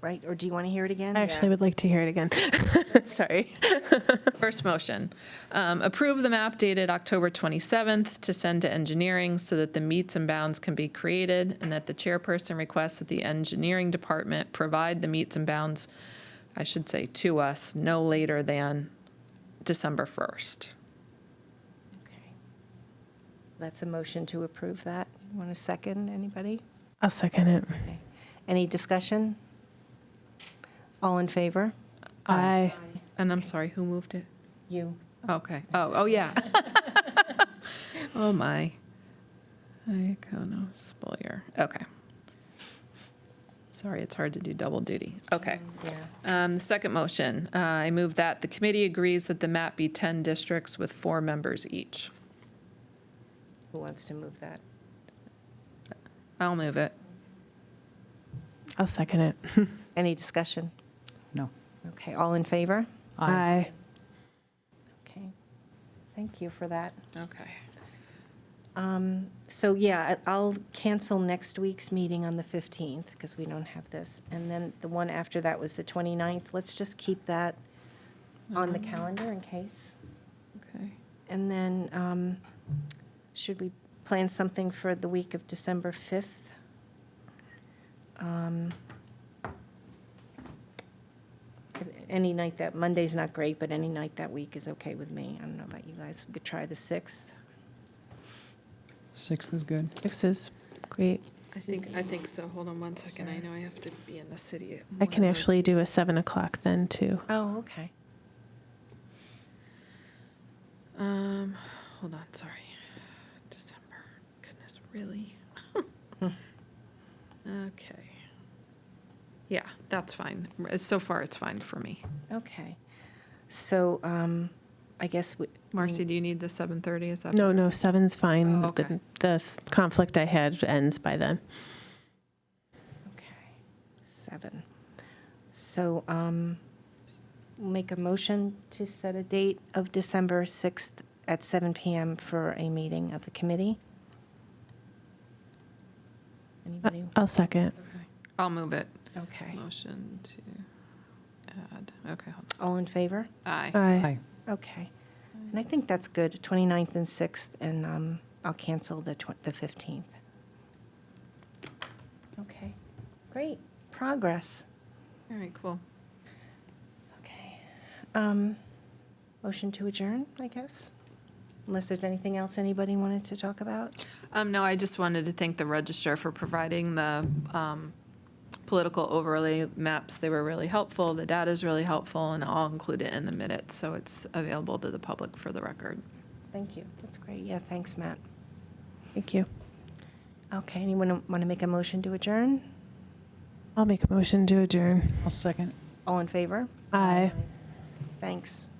right? Or do you want to hear it again? I actually would like to hear it again. Sorry. First motion, um, approve the map dated October 27th to send to engineering so that the meets and bounds can be created and that the chairperson requests that the engineering department provide the meets and bounds, I should say, to us no later than December 1st. Okay. That's a motion to approve that. Want a second, anybody? I'll second it. Okay. Any discussion? All in favor? I And I'm sorry, who moved it? You. Okay, oh, oh, yeah. Oh, my. Iconosphere, okay. Sorry, it's hard to do double duty. Okay. Yeah. Um, The second motion, uh, I move that the committee agrees that the map be 10 districts with four members each. Who wants to move that? I'll move it. I'll second it. Any discussion? No. Okay, all in favor? I Okay. Thank you for that. Okay. Um, So yeah, I- I'll cancel next week's meeting on the 15th because we don't have this. And then the one after that was the 29th. Let's just keep that on the Mm-hmm. calendar in case. Okay. And then um, should we plan something for the week of December 5th? Um, Any night that, Monday's not great, but any night that week is okay with me. I don't know about you guys. We could try the 6th. Sixth is good. Six is great. I think, I think so. Hold on one second. I know I have to be in the city. at I one can of those- actually do a seven o'clock then too. Oh, okay. Um, hold on, sorry. December, goodness, really? Okay. Yeah, that's fine. So far, it's fine for me. Okay. So um, I guess we. Marcy, do you need the 7:30? Is that? Mm. No, no, seven's fine. Oh, The- okay. The conflict I had ends by then. Okay, seven. So um, make a motion to set a date of December 6th at seven PM for a meeting of the committee. Anybody? I'll second. Okay. I'll move it. Okay. Motion to add, okay, hold All in favor? on. Aye. I Aye. Okay. And I think that's good, 29th and 6th, and um, I'll cancel the tw- the 15th. Okay, great. Progress. All right, cool. Okay. Um, Motion to adjourn, I guess? Unless there's anything else anybody wanted to talk about? Um, no, I just wanted to thank the Register for providing the, um, political overlay maps. They were really helpful, the data is really helpful, and I'll include it in the minutes, so it's available to the public for the record. Thank you. That's great. Yeah, thanks, Matt. Thank you. Okay, anyone want to make a motion to adjourn? I'll make a motion to adjourn. I'll second. All in favor? Aye. Thanks.